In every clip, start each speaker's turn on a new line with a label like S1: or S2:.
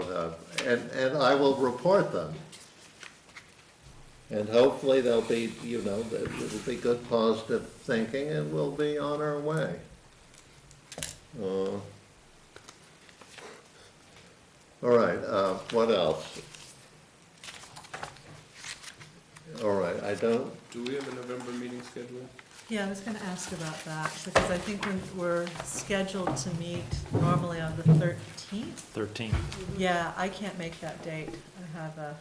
S1: uh, and, and I will report them. And hopefully they'll be, you know, that it'll be good positive thinking and we'll be on our way. Uh, All right, uh, what else? All right, I don't,
S2: Do we have a November meeting scheduled?
S3: Yeah, I was gonna ask about that, because I think we- we're scheduled to meet normally on the thirteenth.
S4: 13.
S3: Yeah, I can't make that date. I have a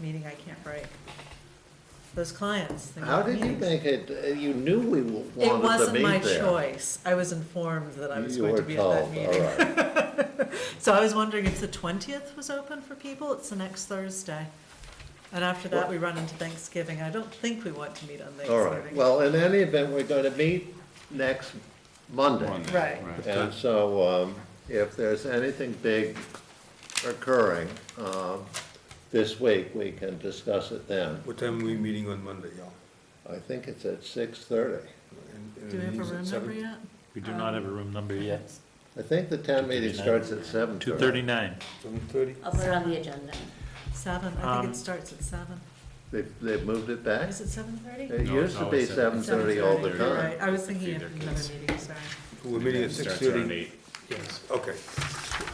S3: meeting I can't break. Those clients. they
S1: how
S3: got
S1: did you
S3: meetings.
S1: make it, uh, you knew we w- wanted to meet there.
S3: It wasn't my choice. I was informed that I was
S1: You
S3: going to
S1: were
S3: be at that
S1: told, all
S3: meeting.
S1: right.
S3: So I was wondering if the twentieth was open for people? It's the next Thursday. And after that, we run into Thanksgiving. I don't think we want to meet on
S1: All
S3: Thanksgiving.
S1: right, well, in any event, we're going to meet next Monday.
S3: Right.
S1: And so um, if there's anything big occurring um, this week, we can discuss it then.
S5: What time are we meeting on Monday, y'all?
S1: I think it's at 6:30.
S5: And- and
S3: Do we have a
S5: meeting's at
S3: room number
S5: seven?
S3: yet?
S4: We do not have a room number yet.
S1: I think the town meeting starts at 7:30.
S4: 239.
S5: Seven thirty?
S6: I'll put it on the agenda.
S3: Seven, I
S4: Um,
S3: think it starts at seven.
S1: They've, they've moved it back?
S3: Is it seven thirty?
S1: It used to be 7:30 eh? all the time.
S3: I was thinking of
S7: Feed their
S3: another
S7: kids.
S3: meeting, sorry.
S5: We're meeting at six
S7: Starts around
S5: thirty?
S7: eight.
S5: Yes. Okay,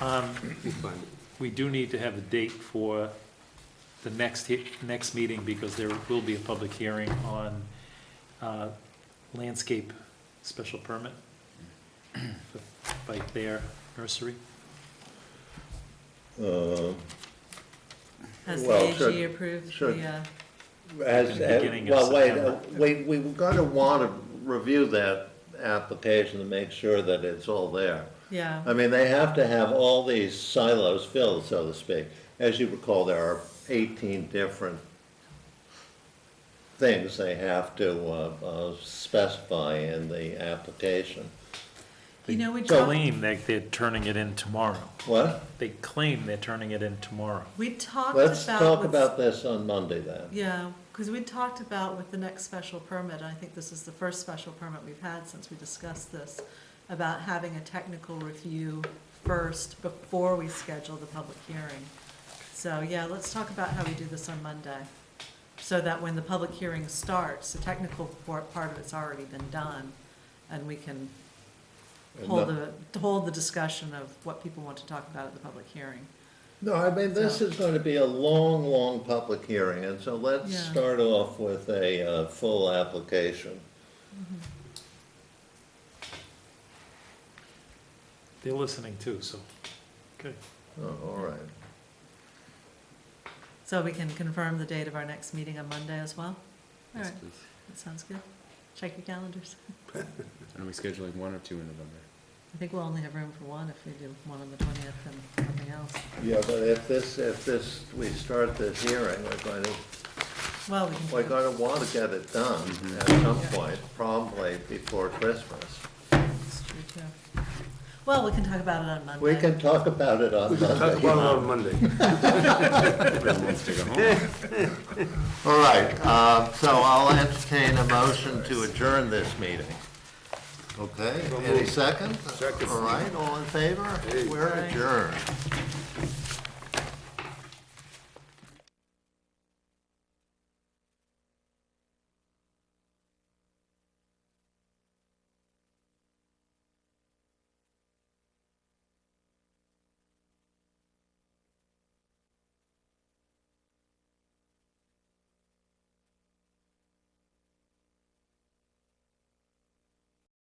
S4: Um,
S5: we're fine.
S4: We do need to have a date for the next, he- next meeting because there will be a public hearing on uh, landscape special permit for- by their nursery.
S1: Uh,
S3: Has
S1: Well,
S3: the AG
S1: should-
S3: approved
S1: should-
S3: the, uh,
S1: As,
S4: the beginning of
S1: well, wait, uh,
S4: September.
S1: we, we were going to want to review that application to make sure that it's all there.
S3: yeah,
S1: I mean, they have to have all these silos filled, so to speak. As you recall, there are 18 different things they have to uh, uh, specify in the application.
S3: you know, we talked,
S4: Claim that they're turning it in tomorrow.
S1: What?
S4: They claim they're turning it in tomorrow.
S3: we talked about.
S1: Let's talk
S3: what's-
S1: about this on Monday then.
S3: Yeah, because we talked about with the next special permit, I think this is the first special permit we've had since we discussed this, about having a technical review first before we schedule the public hearing. So, yeah, let's talk about how we do this on Monday, so that when the public hearing starts, the technical por- part of it's already been done, and we can hold the, hold the discussion of what people want to talk about at the public hearing.
S1: No, I mean, this is going to be a long, long public hearing, and so let's
S3: Yeah.
S1: start off with a uh, full application.
S4: They're listening too, so, good.
S1: Oh, All right.
S3: So we can confirm the date of our next meeting on Monday as well? All
S7: Yes,
S3: right,
S7: please.
S3: that sounds good. Check your calendars.
S7: And are we scheduling one or two in November?
S3: I think we'll only have room for one if we do one on the twentieth and nothing else.
S1: Yeah, but if this, if this, we start this hearing, we're going to
S3: Well, we can.
S1: We're
S3: do-
S1: gonna wanna get it done at some point, probably before Christmas.
S3: it's true, too. Well, we can talk about it on Monday.
S1: We can talk about it on
S5: Talk
S1: Monday.
S5: about it on Monday.
S7: Everyone wants to go home.
S1: All right, uh, so I'll entertain a motion to adjourn this meeting. Okay, any second?
S5: Second.
S1: All right, all in favor? We're adjourned.